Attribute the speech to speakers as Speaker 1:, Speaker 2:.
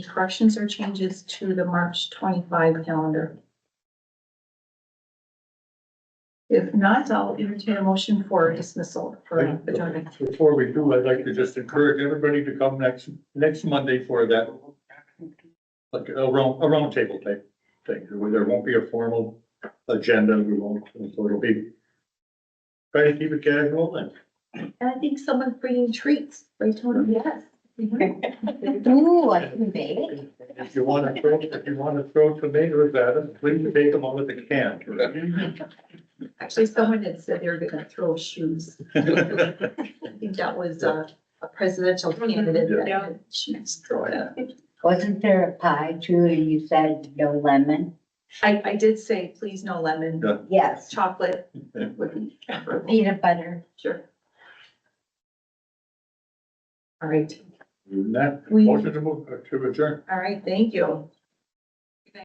Speaker 1: corrections or changes to the March twenty-five calendar? If not, I'll entertain a motion for dismissal for adjournment.
Speaker 2: Before we do, I'd like to just encourage everybody to come next, next Monday for that. Like a round, a round table type thing, where there won't be a formal agenda, we won't, so it'll be. Try to keep it casual and
Speaker 1: And I think someone's bringing treats, right, Tony? Yes. Mm-hmm.
Speaker 3: Ooh, I can bake.
Speaker 2: if you wanna throw, if you wanna throw tomatoes at us, please take them out of the can.
Speaker 1: Actually, someone had said they were gonna throw shoes. I think that was uh, a presidential candidate that
Speaker 4: Yeah.
Speaker 1: had shoes thrown out.
Speaker 3: Wasn't there a pie too, and you said no lemon?
Speaker 1: I, I did say, please no lemon,
Speaker 2: Yeah.
Speaker 3: Yes,
Speaker 1: chocolate would be preferable.
Speaker 3: peanut butter.
Speaker 1: Sure. All right,
Speaker 2: And that,
Speaker 1: we, all
Speaker 2: motion to move, to adjourn,
Speaker 1: right, thank you.